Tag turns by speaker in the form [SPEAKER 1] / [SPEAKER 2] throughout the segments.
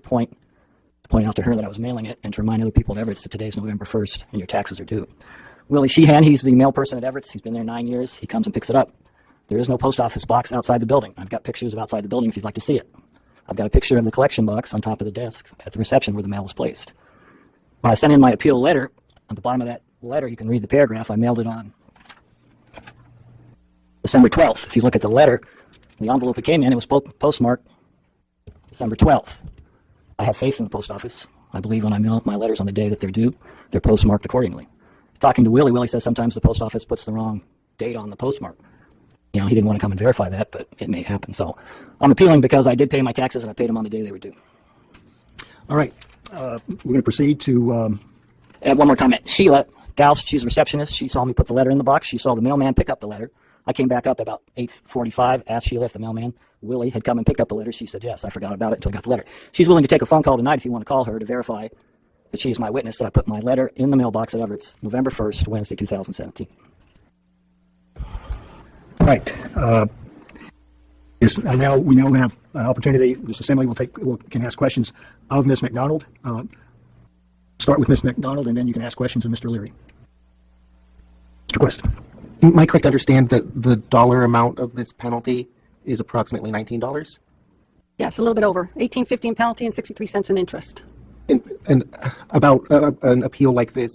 [SPEAKER 1] point to point out to her that I was mailing it and to remind other people at Everett's that today's November 1st and your taxes are due. Willie Sheehan, he's the mail person at Everett's. He's been there nine years. He comes and picks it up. There is no post office box outside the building. I've got pictures of outside the building if you'd like to see it. I've got a picture of the collection box on top of the desk at the reception where the mail was placed. When I sent in my appeal letter, at the bottom of that letter, you can read the paragraph. I mailed it on December 12th. If you look at the letter, the envelope it came in, it was po- postmarked December 12th. I have faith in the post office. I believe when I mail my letters on the day that they're due, they're postmarked accordingly. Talking to Willie, Willie says sometimes the post office puts the wrong date on the postmark. You know, he didn't want to come and verify that, but it may happen. So I'm appealing because I did pay my taxes and I paid them on the day they were due.
[SPEAKER 2] All right, uh, we're going to proceed to, um,
[SPEAKER 1] And Uh, one more comment. Sheila Douse, she's a receptionist. She saw me put the letter in the box. She saw the mailman pick up the letter. I came back up about 8:45, asked Sheila if the mailman Willie had come and picked up the letter. She said yes. I forgot about it until I got the letter. She's willing to take a phone call tonight if you want to call her to verify that she is my witness that I put my letter in the mailbox at Everett's November 1st, Wednesday, 2017.
[SPEAKER 2] all right. uh, Yes, I now, we now have an opportunity, this assembly will take, will- can ask questions of Ms. McDonald. Uh, Start with Ms. McDonald, and then you can ask questions of Mr. Leary. Mr. Quest,
[SPEAKER 3] Am I correct to understand that the dollar amount of this penalty is approximately $19?
[SPEAKER 4] Yes, a little bit over. Eighteen fifty in penalty and 63 cents in interest.
[SPEAKER 3] And, and about uh, an appeal like this,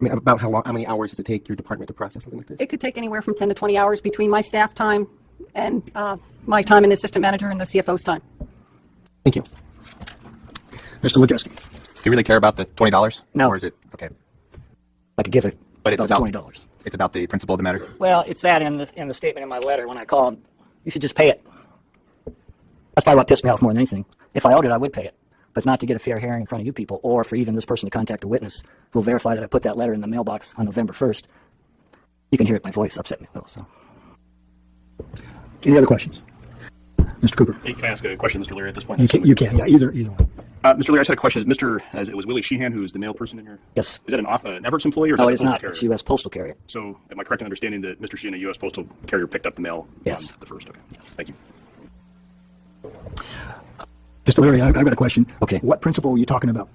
[SPEAKER 3] I mean, about how long, how many hours does it take your department to process something like this?
[SPEAKER 4] It could take anywhere from 10 to 20 hours between my staff time and uh, my time and the assistant manager and the CFO's time.
[SPEAKER 3] Thank you.
[SPEAKER 2] Mr. Wojcicki.
[SPEAKER 5] Do you really care about the twenty dollars?
[SPEAKER 1] No.
[SPEAKER 5] Or is it okay?
[SPEAKER 1] I could give it
[SPEAKER 5] But it's
[SPEAKER 1] about,
[SPEAKER 5] about
[SPEAKER 1] $20.
[SPEAKER 5] It's about the principle of the matter.
[SPEAKER 1] Well, it's that in the, in the statement in my letter when I called. You should just pay it. That's probably what pissed me off more than anything. If I owed it, I would pay it, but not to get a fair hearing in front of you people, or for even this person to contact a witness who will verify that I put that letter in the mailbox on November 1st. You can hear it. My voice upset me a little. So,
[SPEAKER 2] Any other questions? Mr. Cooper?
[SPEAKER 6] Hey, can I ask a question, Mr. Leary, at this point?
[SPEAKER 2] You can, you can, yeah, either, either one.
[SPEAKER 6] Uh, Mr. Leary, I just had a question. Is Mr. As it was Willie Sheehan, who is the mail person in here?
[SPEAKER 1] yes.
[SPEAKER 6] Is that an, off, an Everts employee or is
[SPEAKER 1] No, it
[SPEAKER 6] that a
[SPEAKER 1] is
[SPEAKER 6] postal
[SPEAKER 1] not.
[SPEAKER 6] carrier?
[SPEAKER 1] It's U.S. postal carrier.
[SPEAKER 6] So, am I correct in understanding that Mr. Sheehan, a U.S. postal carrier, picked up the mail
[SPEAKER 1] Yes.
[SPEAKER 6] on the first? Okay. Thank you.
[SPEAKER 2] Mr. Leary, I- I've got a question.
[SPEAKER 1] Okay.
[SPEAKER 2] What principle are you talking about?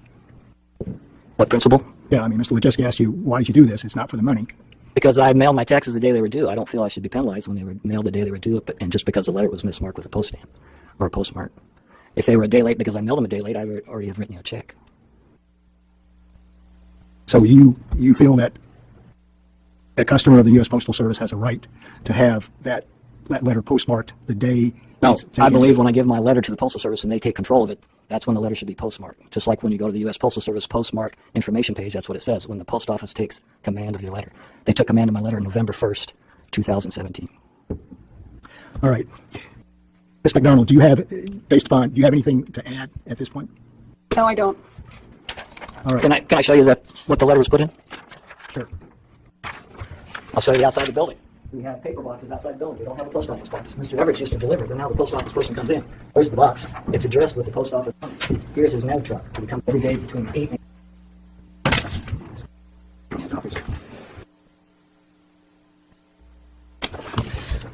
[SPEAKER 1] What principle?
[SPEAKER 2] Yeah, I mean, Mr. Wojcicki asked you, why did you do this? It's not for the money.
[SPEAKER 1] Because I mailed my taxes the day they were due. I don't feel I should be penalized when they were mailed the day they were due, but, and just because the letter was mismarked with a post stamp or a postmark. If they were a day late because I mailed them a day late, I would already have written you a check.
[SPEAKER 2] So you, you feel that a customer of the U.S. Postal Service has a right to have that, that letter postmarked the day?
[SPEAKER 1] No,
[SPEAKER 2] it's taken?
[SPEAKER 1] I believe when I give my letter to the Postal Service and they take control of it, that's when the letter should be postmarked. Just like when you go to the U.S. Postal Service postmark information page, that's what it says, when the post office takes command of your letter. They took command of my letter November 1st, 2017.
[SPEAKER 2] All right. Ms. McDonald, do you have, based upon, do you have anything to add at this point?
[SPEAKER 4] No, I don't.
[SPEAKER 2] All
[SPEAKER 1] Can I,
[SPEAKER 2] right,
[SPEAKER 1] can I show you that, what the letter was put in?
[SPEAKER 2] sure.
[SPEAKER 1] I'll show you outside the building. We have paper boxes outside the building. We don't have a post office box. Mr. Everett used to deliver, but now the post office person comes in. Where's the box? It's addressed with the post office. on it. Here's his mail truck. It comes every day between eight and.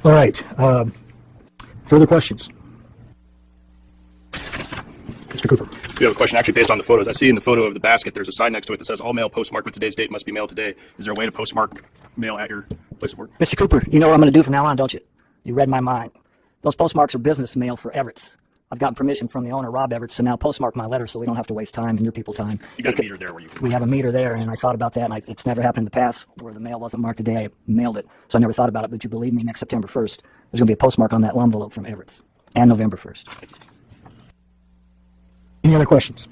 [SPEAKER 2] All right. um, Further questions? Mr. Cooper?
[SPEAKER 6] We have a question actually based on the photos. I see in the photo of the basket, there's a sign next to it that says all mail postmarked with today's date must be mailed today. Is there a way to postmark mail at your place of work?
[SPEAKER 1] Mr. Cooper, you know what I'm going to do from now on, don't you? You read my mind. Those postmarks are business mail for Everett's. I've gotten permission from the owner, Rob Everett, to now postmark my letter so we don't have to waste time and your people time.
[SPEAKER 6] You got a meter there where you.
[SPEAKER 1] we have a meter there, and I thought about that, and I, it's never happened in the past where the mail wasn't marked the day I mailed it, so I never thought about it. But you believe me, next September 1st, there's going to be a postmark on that envelope from Everett's, and November 1st.
[SPEAKER 2] Any other questions?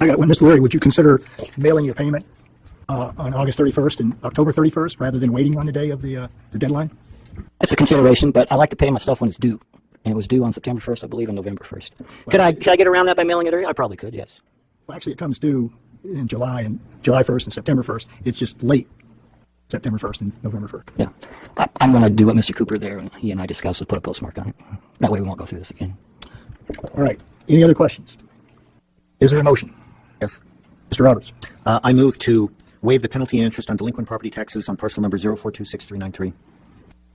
[SPEAKER 2] I got one. Mr. Leary, would you consider mailing your payment uh, on August 31st and October 31st rather than waiting on the day of the uh, the deadline?
[SPEAKER 1] That's a consideration, but I like to pay my stuff when it's due, and it was due on September 1st, I believe, and November 1st. Could I could I get around that by mailing it early? I probably could, yes.
[SPEAKER 2] Well, actually, it comes due in July and July 1st and September 1st. It's just late September 1st and November 1st.
[SPEAKER 1] Yeah, I, I'm going to do what Mr. Cooper there and he and I discussed was put a postmark on it. That way we won't go through this again.
[SPEAKER 2] All right. Any other questions? Is there a motion?
[SPEAKER 7] Yes.
[SPEAKER 2] Mr. Roberts.
[SPEAKER 7] Uh, I move to waive the penalty and interest on delinquent property taxes on parcel number 0426393.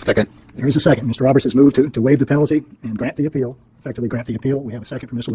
[SPEAKER 5] Second.
[SPEAKER 2] There is a second. Mr. Roberts has moved to to waive the penalty and grant the appeal, effectively grant the appeal. We have a second from Mr.